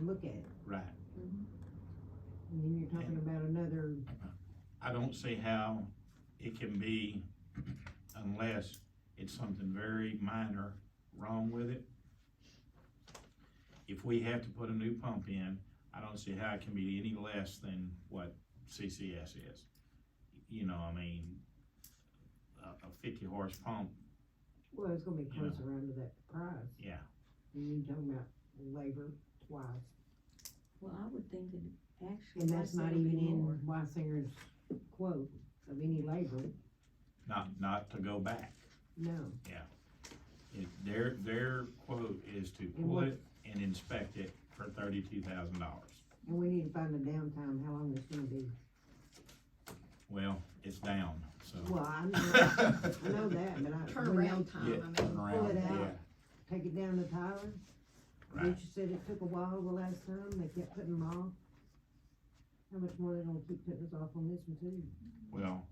look at. Right. And then you're talking about another, I don't see how it can be unless it's something very minor wrong with it. If we have to put a new pump in, I don't see how it can be any less than what CCS is. You know, I mean, a, a fifty horse pump, well, it's gonna be You know. closer around to that price, yeah, and you're talking about labor twice. Well, I would think that actually. And that's I'd not say it'd be even in more. Weisinger's quote of any labor, not, not to go back. no. It- Their, their quote is to pull it and inspect it for thirty-two thousand dollars. And we need to find the downtime, how long it's gonna be. Well, it's down, so. Well, I know, I know that, but I, when y'all Turnaround Yeah, time, I turn mean, around, pull it out. yeah, take it down to Tyler, Right, Richard said it took a while the last time, they kept putting them off. How much more they gonna keep putting us off on this one too? well,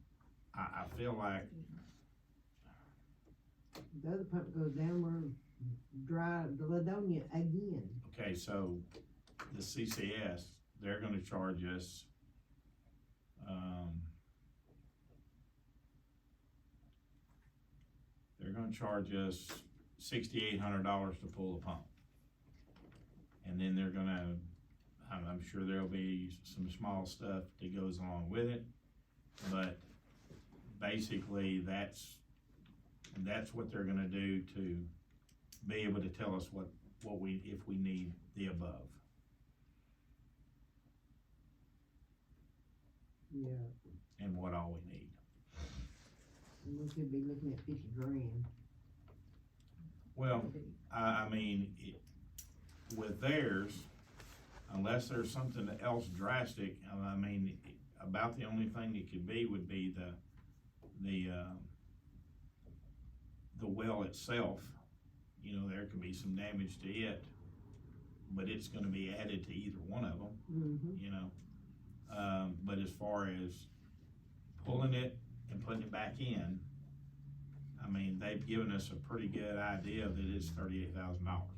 I, I feel like, The other pump goes down, we're dry, the Ladonia again. okay, so the CCS, they're gonna charge us, um, they're gonna charge us sixty-eight hundred dollars to pull the pump. And then they're gonna, I'm, I'm sure there'll be some small stuff that goes along with it, but basically, that's, that's what they're gonna do to be able to tell us what, what we, if we need the above. Yeah, and what all we need. and we could be looking at fifty grand. Well, I, I mean, it- with theirs, unless there's something else drastic, I- I mean, about the only thing it could be would be the, the, um, the well itself, you know, there could be some damage to it, but it's gonna be added to either one of them. Mm-hmm. you know. Um, but as far as pulling it and putting it back in, I mean, they've given us a pretty good idea that it's thirty-eight thousand dollars.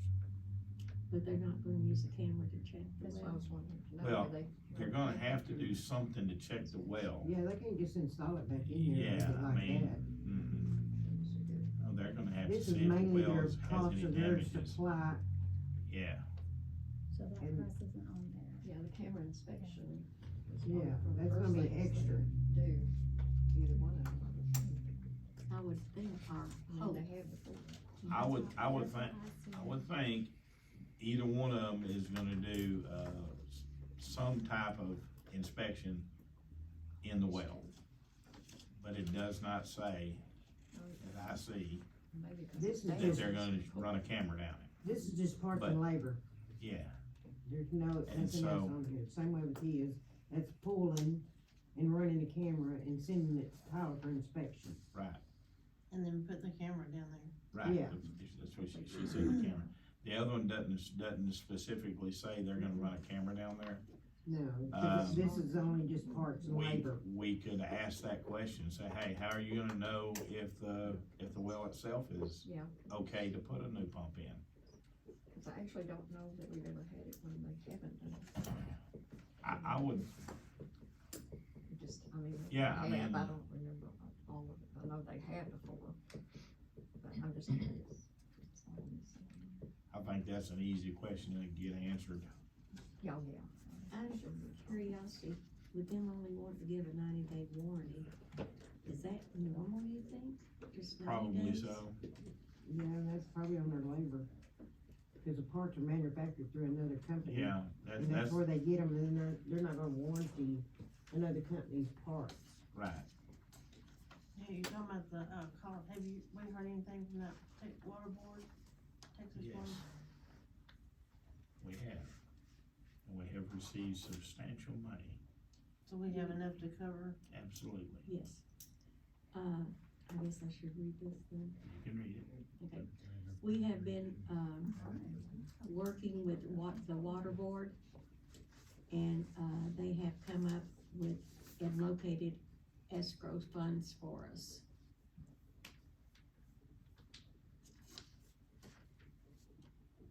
But they're not gonna use a camera to check the that's what I well. was wondering. That Well, way they- They're gonna have to do something to check the well. Yeah, they can't just install it back in there and leave it Oh. Yeah, I like mean, that. Mhm. Oh, they're gonna have to This is see if the mainly well their has cost any of their damages. supply, Yeah, So that And- price isn't on there. Yeah, the camera inspection. is one yeah, of the that's first gonna be things extra. they Do, either one of them. I would think our I Oh. mean, hope, they have before. I would, I would think, That's I what would think either one of them is gonna do, uh, s- some type of inspection in the well. But it does not say that I see Oh, Maybe 'cause This is they- that they're gonna run a camera down it. This is just parts But- and labor. Yeah, There's no, And nothing else so- on here, same way with his, that's pulling and running the camera and sending it to Tyler for inspection. right, And then put the camera down there. right. Yeah. That's- That's what she, she said, the camera. The other one doesn't, doesn't specifically say they're gonna run a camera down there. No, 'cause Um, this is only just parts and We, labor. we could ask that question, say, hey, how are you gonna know if the, if the well itself is Yeah, okay to put a new pump in? cause I actually don't know that we've ever had it when they haven't done it. I, I would, It Just, I mean. they Yeah, I have. I mean- don't remember all of it. I know they have before. But I'm just curious. I think that's an easy question to get answered. Yeah, oh, yeah. out of curiosity, with them only wanting to give a ninety day warranty, is that normal, you think? Just 90 Probably days? so. Yeah, and that's probably on their labor. Cause the parts are manufactured through another company. Yeah, that's, And that's that's where they get them, and then they're, they're not gonna warranty another company's parts. right. Hey, you talking about the, uh, call, have you, we heard anything from that Tech Water Board? Texas Yes. Water? We have. And we have received substantial money, So we have enough to cover, absolutely. Yes. Uh, I guess I should read this then. You can read it. Okay. We have been, um, working with wa- the water board. And, uh, they have come up with and located escrow funds for us.